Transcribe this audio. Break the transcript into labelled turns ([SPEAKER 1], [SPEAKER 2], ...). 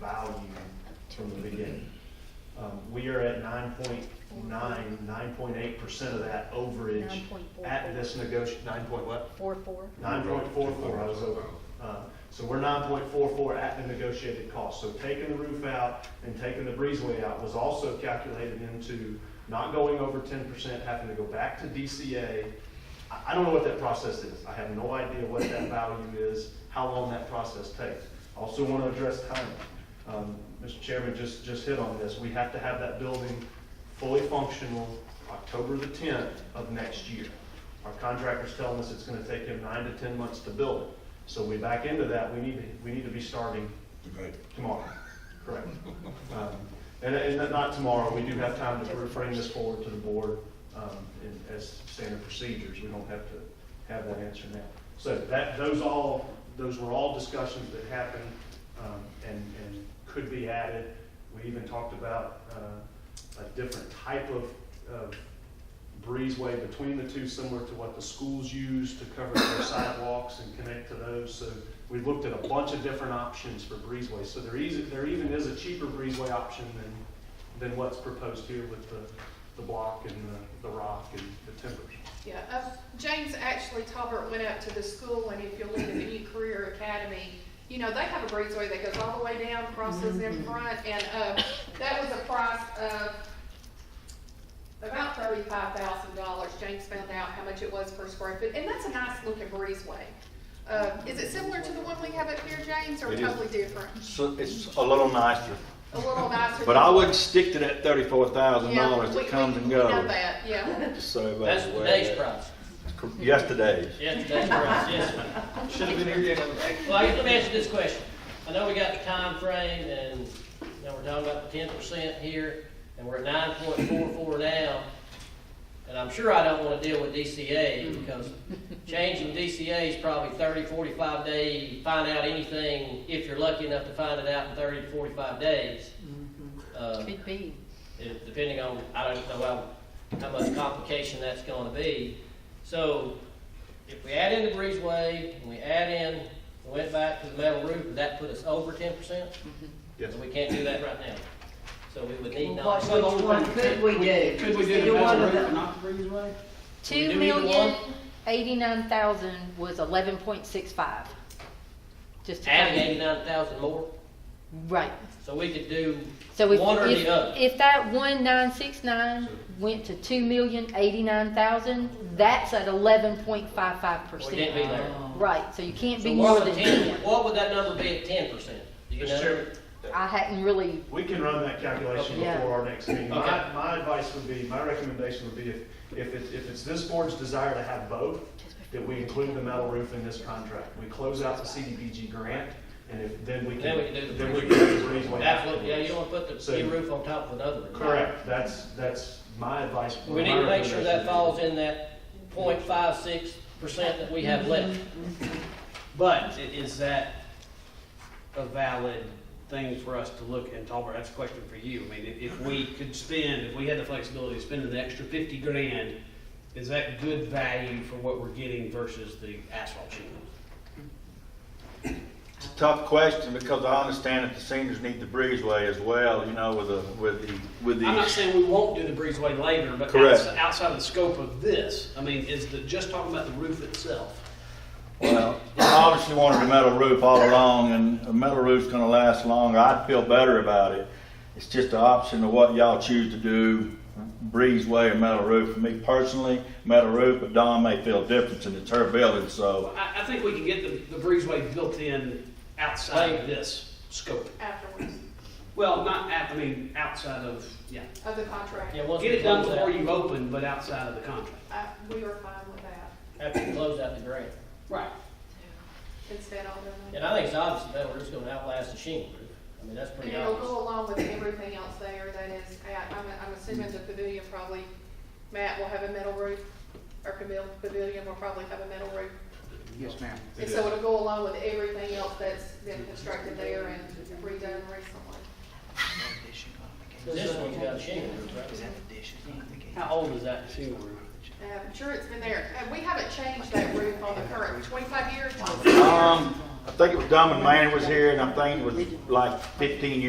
[SPEAKER 1] value from the beginning. Um, We are at nine point nine, nine point eight percent of that overage at this negoti, nine point what?
[SPEAKER 2] Four, four.
[SPEAKER 1] Nine point four four, I was over. Uh, So we're nine point four four at the negotiated cost. So taking the roof out and taking the breezeway out was also calculated into not going over ten percent, having to go back to DCA. I, I don't know what that process is. I have no idea what that value is, how long that process takes. I Also want to address timing. Um, Mr. Chairman just, just hit on this. We have to have that building fully functional October the tenth of next year. Our contractor's telling us it's gonna take him nine to ten months to build it. So we back into that, we need, to- we need to be starting
[SPEAKER 3] Okay.
[SPEAKER 1] tomorrow, correct? Um, And, and not tomorrow, we do have time to bring this forward to the board, um, in, as standard procedures, we don't have to have that answer now. So that, those all, those were all discussions that happened, um, and, and could be added. We even talked about, uh, a different type of, of breezeway between the two, similar to what the schools use to cover their sidewalks and connect to those. So we looked at a bunch of different options for breezeway. So there is, there even is a cheaper breezeway option than, than what's proposed here with the, the block and the, the rock and the timbers.
[SPEAKER 4] Yeah, uh, James actually, Talbert went up to the school, and if you look at the new career academy, you know, they have a breezeway that goes all the way down, crosses
[SPEAKER 5] Mm-hmm.
[SPEAKER 4] in front, and, uh, that was a price of about thirty-five thousand dollars. James found out how much it was per square foot, and that's a nice looking breezeway. Uh, is it similar to the one we have up here, James, or
[SPEAKER 5] It is.
[SPEAKER 4] totally different?
[SPEAKER 5] So it's a little nicer,
[SPEAKER 4] A little nicer.
[SPEAKER 5] but I wouldn't stick to that thirty-four thousand
[SPEAKER 4] Yeah,
[SPEAKER 5] dollars
[SPEAKER 4] we-
[SPEAKER 5] that comes and
[SPEAKER 4] we- we know
[SPEAKER 5] goes.
[SPEAKER 4] that, yeah.
[SPEAKER 5] So
[SPEAKER 6] That's
[SPEAKER 5] that's the way
[SPEAKER 6] today's
[SPEAKER 5] it is.
[SPEAKER 6] price.
[SPEAKER 5] Yesterday's.
[SPEAKER 6] Yes, today's price, yes, ma'am.
[SPEAKER 3] Should have been here getting.
[SPEAKER 6] Well, let me ask you this question. I know we got the time frame, and, you know, we're talking about the ten percent here, and we're at nine point four four now. And I'm sure I don't wanna deal with DCA, because changing DCA is probably 30, 45 day, find out anything, if you're lucky enough to find it out in thirty to forty-five days. Uh,
[SPEAKER 2] Could be.
[SPEAKER 6] it- depending on, I don't know how, how much complication that's gonna be. So, if we add in the breezeway, and we add in, we went back to the metal roof, would that put us over ten percent?
[SPEAKER 1] Yes.
[SPEAKER 6] And we can't do that right now. So we would
[SPEAKER 7] Well,
[SPEAKER 6] need not.
[SPEAKER 7] Which which one could we do?
[SPEAKER 3] Could we do
[SPEAKER 7] Either
[SPEAKER 3] the
[SPEAKER 7] one
[SPEAKER 3] metal
[SPEAKER 7] of
[SPEAKER 3] roof
[SPEAKER 7] them.
[SPEAKER 3] and not the breezeway?
[SPEAKER 6] we
[SPEAKER 2] Two
[SPEAKER 6] do either
[SPEAKER 2] million,
[SPEAKER 6] one?
[SPEAKER 2] eighty-nine thousand was eleven point six five. Just to
[SPEAKER 6] Adding
[SPEAKER 2] kind
[SPEAKER 6] eighty-nine thousand more,
[SPEAKER 2] of- Right,
[SPEAKER 6] so we could do
[SPEAKER 2] so if,
[SPEAKER 6] one or the
[SPEAKER 2] if,
[SPEAKER 6] other.
[SPEAKER 2] if that one nine six nine went to two million, eighty-nine thousand, that's at eleven point five five
[SPEAKER 6] We can't
[SPEAKER 2] percent.
[SPEAKER 6] be there.
[SPEAKER 2] Right, so you can't
[SPEAKER 6] So
[SPEAKER 2] be
[SPEAKER 6] what
[SPEAKER 2] more
[SPEAKER 6] would
[SPEAKER 2] than
[SPEAKER 6] 10
[SPEAKER 2] ten.
[SPEAKER 6] What would that number be at ten percent? Do you
[SPEAKER 1] Mr.
[SPEAKER 6] know?
[SPEAKER 1] Chairman,
[SPEAKER 2] I hadn't really,
[SPEAKER 1] we can run that calculation
[SPEAKER 2] Okay.
[SPEAKER 1] before our next meeting. My,
[SPEAKER 6] Okay.
[SPEAKER 1] my advice would be, my recommendation would be, if, if it's, if it's this board's desire to have both, that we include the metal roof in this contract. We close out the CDBG grant, and if, then we can.
[SPEAKER 6] Then we can do the
[SPEAKER 1] then we can do the breezeway
[SPEAKER 6] Absolutely, yeah,
[SPEAKER 1] afterwards.
[SPEAKER 6] you don't wanna put
[SPEAKER 1] So-
[SPEAKER 6] the new roof on top of another roof.
[SPEAKER 1] Correct, that's, that's my advice.
[SPEAKER 6] We need to make sure that falls in that 0.56 percent that we have left.
[SPEAKER 8] But i- is that a valid thing for us to look, and Talbert, that's a question for you. I mean, if, if we could spend, if we had the flexibility to spend an extra fifty grand, is that good value for what we're getting versus the asphalt shingle?
[SPEAKER 5] It's a tough question because I understand that the seniors need the breezeway as well, you know, with the, with the, with
[SPEAKER 8] I'm not
[SPEAKER 5] the.
[SPEAKER 8] saying we won't do the breezeway later, but
[SPEAKER 5] Correct.
[SPEAKER 8] outs- outside of the scope of this, I mean, is the, just talking about the roof itself.
[SPEAKER 5] Well, I obviously wanted a metal roof all along and a metal roof's gonna last longer. I'd feel better about it. It's just an option of what y'all choose to do, breezeway or metal roof. For me personally, metal roof, but Dawn may feel different and it's her building, so.
[SPEAKER 8] Well, I, I think we can get the, the breezeway built in outside
[SPEAKER 6] Later.
[SPEAKER 8] of this scope.
[SPEAKER 4] Afterwards,
[SPEAKER 8] Well, not at, I mean, outside of, yeah.
[SPEAKER 4] of the contract.
[SPEAKER 6] Yeah, once
[SPEAKER 8] Get
[SPEAKER 6] we
[SPEAKER 8] it done
[SPEAKER 6] close
[SPEAKER 8] before
[SPEAKER 6] out-
[SPEAKER 8] you open, but outside of the contract.
[SPEAKER 4] I- We are fine with that.
[SPEAKER 6] After we close out the grant.
[SPEAKER 8] Right.
[SPEAKER 4] Instead of
[SPEAKER 6] And
[SPEAKER 4] them.
[SPEAKER 6] I think it's obvious the metal roof's gonna outlast the shingle roof. I mean, that's
[SPEAKER 4] And
[SPEAKER 6] pretty
[SPEAKER 4] it'll go
[SPEAKER 6] obvious.
[SPEAKER 4] along with everything else there that is, at- I'm, I'm assuming the pavilion probably, Matt will have a metal roof, or Camille Pavilion will probably have a metal roof.
[SPEAKER 3] Yes, ma'am.
[SPEAKER 4] And so it'll go along with everything else that's been constructed there and redone recently.
[SPEAKER 6] This one's got a shingle roof, right?
[SPEAKER 8] How old is that shingle roof?
[SPEAKER 4] Uh, I'm sure it's been there. Uh, we haven't changed that roof on the current twenty-five years.
[SPEAKER 5] Um, I think it was Dumb and Manning was here, and I'm thinking it was like fifteen years